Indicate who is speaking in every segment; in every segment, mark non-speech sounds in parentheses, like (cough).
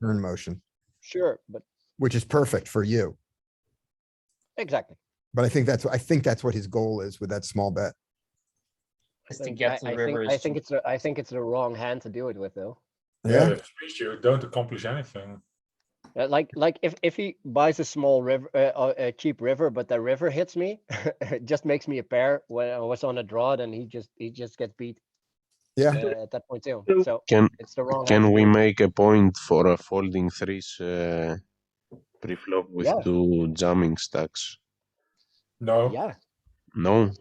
Speaker 1: turn motion,
Speaker 2: Sure, but
Speaker 1: which is perfect for you.
Speaker 2: exactly.
Speaker 1: But I think that's, I think that's what his goal is with that small bet.
Speaker 3: Is
Speaker 2: But
Speaker 3: to
Speaker 2: I-
Speaker 3: get to
Speaker 2: I
Speaker 3: the
Speaker 2: think-
Speaker 3: river.
Speaker 2: I
Speaker 3: is-
Speaker 2: think it's, the- I think it's the wrong hand to do it with though.
Speaker 4: Yeah,
Speaker 1: Yeah,
Speaker 4: that's the issue. Don't accomplish anything.
Speaker 2: Uh, Like, like if, if he buys a small river, uh, uh, a cheap river, but the river hits me, (laughs) it just makes me a pair. When I was on a draw, then he just, he just gets beat uh,
Speaker 1: yeah.
Speaker 2: at that point too.
Speaker 5: So-
Speaker 2: So
Speaker 6: Can
Speaker 2: it's the wrong. hand
Speaker 6: can
Speaker 2: to
Speaker 6: we
Speaker 2: do it.
Speaker 6: make a point for a folding threes uh, pre-flop with
Speaker 2: Yeah.
Speaker 6: two jamming stacks?
Speaker 4: No,
Speaker 2: Yeah,
Speaker 6: No,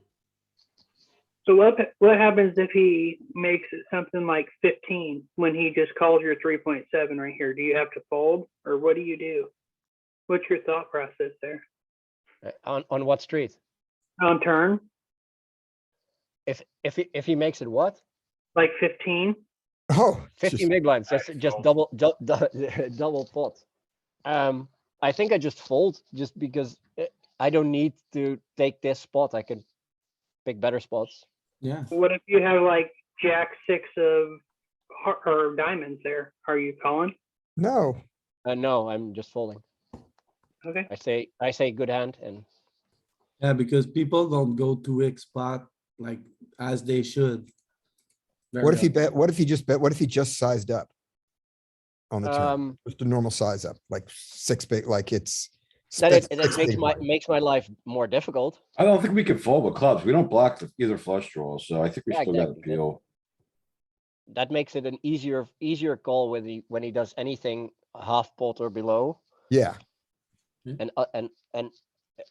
Speaker 5: So what, what happens if he makes it something like fifteen when he just calls your three point seven right here? Do you have to fold or what do you do? What's your thought process there?
Speaker 2: uh, on, on what street?
Speaker 5: On turn,
Speaker 2: If, if, he if he makes it what?
Speaker 5: like fifteen?
Speaker 1: Oh, it's
Speaker 2: Fifty
Speaker 1: just-
Speaker 2: big blinds, that's
Speaker 4: I
Speaker 2: just
Speaker 4: fold.
Speaker 2: double, dou- (laughs) dou- double pot. Um, I think I just fold just because uh, I don't need to take this spot. I can pick better spots.
Speaker 3: Yeah.
Speaker 5: What if you have like jack six of, har- or diamonds there? Are you calling?
Speaker 1: no,
Speaker 2: Uh, no, I'm just folding.
Speaker 5: Okay,
Speaker 2: I say, I say good hand and
Speaker 3: Yeah, because people don't go to X spot like as they should.
Speaker 1: what if he
Speaker 3: Very
Speaker 1: bet, what if he just bet, what if he just sized up? On the turn,
Speaker 2: um,
Speaker 1: just a normal size up, like six big, like it's.
Speaker 2: that it,
Speaker 1: six-
Speaker 2: that
Speaker 1: six
Speaker 2: makes
Speaker 1: big
Speaker 2: my,
Speaker 1: blind.
Speaker 2: makes my life more difficult.
Speaker 7: I don't think we can fold with clubs. We don't block the- either flush draw, so I think we
Speaker 2: Yeah,
Speaker 7: still got
Speaker 2: exactly.
Speaker 7: appeal.
Speaker 2: That makes it an easier, easier call when he, when he does anything half pot or below.
Speaker 1: Yeah,
Speaker 2: And, uh, and, and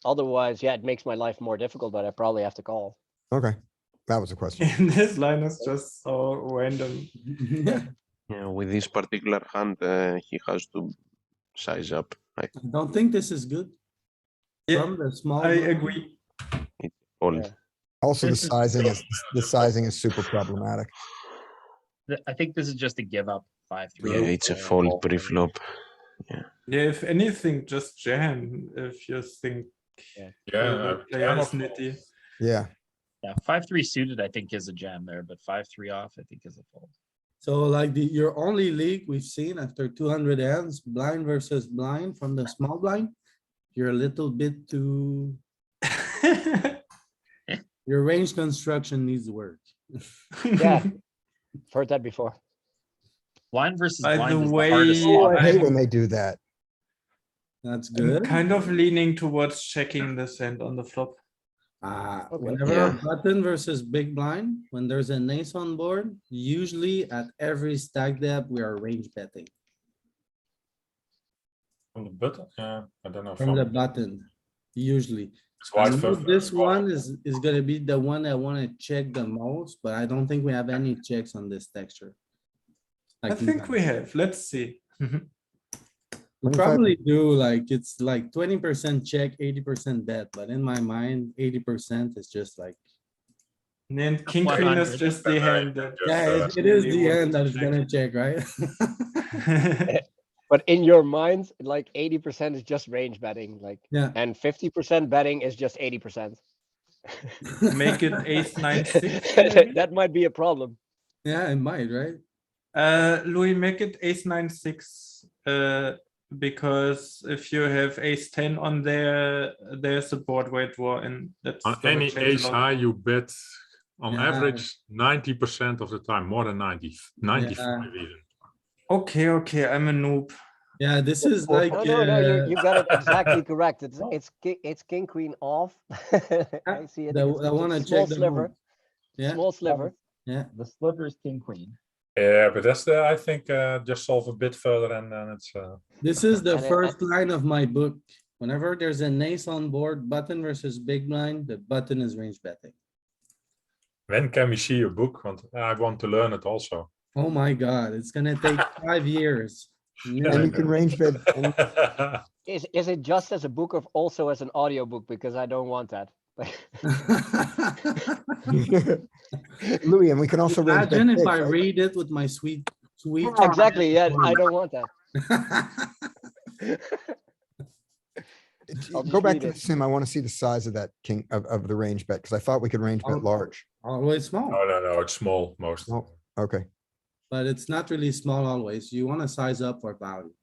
Speaker 2: otherwise, yeah, it makes my life more difficult, but I probably have to call.
Speaker 1: okay. That was a question.
Speaker 8: (laughs) And this line is just so random.
Speaker 3: (laughs) well.
Speaker 6: yeah, with this particular hand, uh, he has to size up. I
Speaker 3: I Don't think this is good.
Speaker 8: Yeah,
Speaker 3: From the
Speaker 8: I
Speaker 3: small. blind,
Speaker 8: agree.
Speaker 6: fold.
Speaker 2: Yeah.
Speaker 1: Also, the
Speaker 9: This is-
Speaker 1: sizing is, the sizing is super problematic.
Speaker 9: Th- I think this is just a give up five three.
Speaker 6: Yeah, it's a fold pre-flop.
Speaker 8: Yeah, if anything, just jam if you think
Speaker 4: Yeah,
Speaker 8: the
Speaker 4: I
Speaker 8: player is
Speaker 4: cannot
Speaker 8: nitty.
Speaker 4: fold.
Speaker 1: Yeah,
Speaker 9: Yeah, five three suited I think is a jam there, but five three off I think is a fold.
Speaker 3: So like the, your only league we've seen after two hundred hands, blind versus blind from the small blind. You're a little bit too, your range construction needs work.
Speaker 2: Yeah. Heard that before.
Speaker 9: Blind versus
Speaker 8: (laughs) By
Speaker 9: blind
Speaker 8: the
Speaker 9: is
Speaker 8: way,
Speaker 9: the hardest
Speaker 8: Oh,
Speaker 1: I
Speaker 9: spot.
Speaker 1: hate
Speaker 8: I'm-
Speaker 1: when they do that.
Speaker 3: That's
Speaker 8: I'm
Speaker 3: good.
Speaker 8: kind of leaning towards checking this hand on the flop.
Speaker 3: Uh,
Speaker 2: Okay.
Speaker 3: whenever
Speaker 6: Yeah.
Speaker 3: button versus big blind, when there's an ace on board, usually at every stack depth, we are range betting
Speaker 4: On the button, yeah, I don't know.
Speaker 3: from the
Speaker 4: fold.
Speaker 3: button, usually.
Speaker 4: It's
Speaker 3: I
Speaker 4: wide
Speaker 3: know
Speaker 4: first,
Speaker 3: This
Speaker 4: uh, call.
Speaker 3: one is, is gonna be the one I wanna check the most, but I don't think we have any checks on this texture.
Speaker 8: I
Speaker 3: Like,
Speaker 8: think we have, let's see.
Speaker 3: we
Speaker 1: 25
Speaker 3: Probably do, like, it's like twenty percent check, eighty percent bet, but in my mind, eighty percent is just like,
Speaker 8: And then king queen is
Speaker 9: 100.
Speaker 8: just the hand that.
Speaker 4: Just,
Speaker 3: yeah,
Speaker 4: uh,
Speaker 3: it- it is
Speaker 8: we
Speaker 3: the
Speaker 8: want to
Speaker 3: end that is
Speaker 8: check.
Speaker 3: gonna check, right? (laughs)
Speaker 2: But in your mind, like eighty percent is just range betting, like,
Speaker 3: Yeah.
Speaker 2: and fifty percent betting is just eighty percent.
Speaker 8: (laughs) Make it ace
Speaker 2: (laughs)
Speaker 8: nine six. maybe?
Speaker 2: That might be a problem.
Speaker 3: (laughs) Yeah, it might, right?
Speaker 8: Uh, Louis, make it ace nine six, uh, because if you have ace ten on there, there's a board weight war and that's.
Speaker 4: On
Speaker 8: gonna
Speaker 4: any
Speaker 8: change a
Speaker 4: ace
Speaker 8: lot.
Speaker 4: high you bet, on
Speaker 3: Yeah.
Speaker 4: average, ninety percent of the time, more than 90, 95 even.
Speaker 8: Okay, okay, I'm a noob.
Speaker 3: Yeah, this is like,
Speaker 2: No, no, no,
Speaker 3: uh,
Speaker 2: you, you got it exactly correct.
Speaker 3: (laughs)
Speaker 2: It's,
Speaker 3: No.
Speaker 2: it's, ki- it's king, queen off. (laughs) I see it. It's-
Speaker 3: Ah, the- I
Speaker 2: it's a
Speaker 3: wanna
Speaker 2: small
Speaker 3: check the
Speaker 2: sliver,
Speaker 3: move. yeah,
Speaker 2: Small sliver.
Speaker 3: yeah.
Speaker 9: The sliver is king queen.
Speaker 4: Yeah, but that's the, I think, uh, just solve a bit further and then it's, uh,
Speaker 3: This is the
Speaker 2: And it-
Speaker 3: first line of my book. Whenever there's an ace on board, button versus big blind, the button is range betting.
Speaker 4: when can we see your book? Want, I want to learn it also. (laughs)
Speaker 3: Oh my god, it's gonna take five years.
Speaker 1: And
Speaker 3: No,
Speaker 1: you can range bet, and
Speaker 2: Is, is it just as a book or also as an audiobook? Because I don't want that. (laughs)
Speaker 3: Ah,
Speaker 1: Louis, and we can (laughs) also. range bet
Speaker 3: Imagine if
Speaker 1: big,
Speaker 3: I
Speaker 1: right?
Speaker 3: read it with my sweet, sweet. (laughs)
Speaker 2: Exactly, yeah, I don't want that.
Speaker 1: J-
Speaker 2: I'll
Speaker 1: Go
Speaker 2: just
Speaker 1: back
Speaker 2: read
Speaker 1: to
Speaker 2: it.
Speaker 1: the sim. I want to see the size of that king of, of the range bet because I thought we could range
Speaker 3: Oh.
Speaker 1: bet large.
Speaker 3: Always small.
Speaker 4: No, no, no, it's small most.
Speaker 1: Okay.
Speaker 3: but it's not really small always. You wanna size up for value.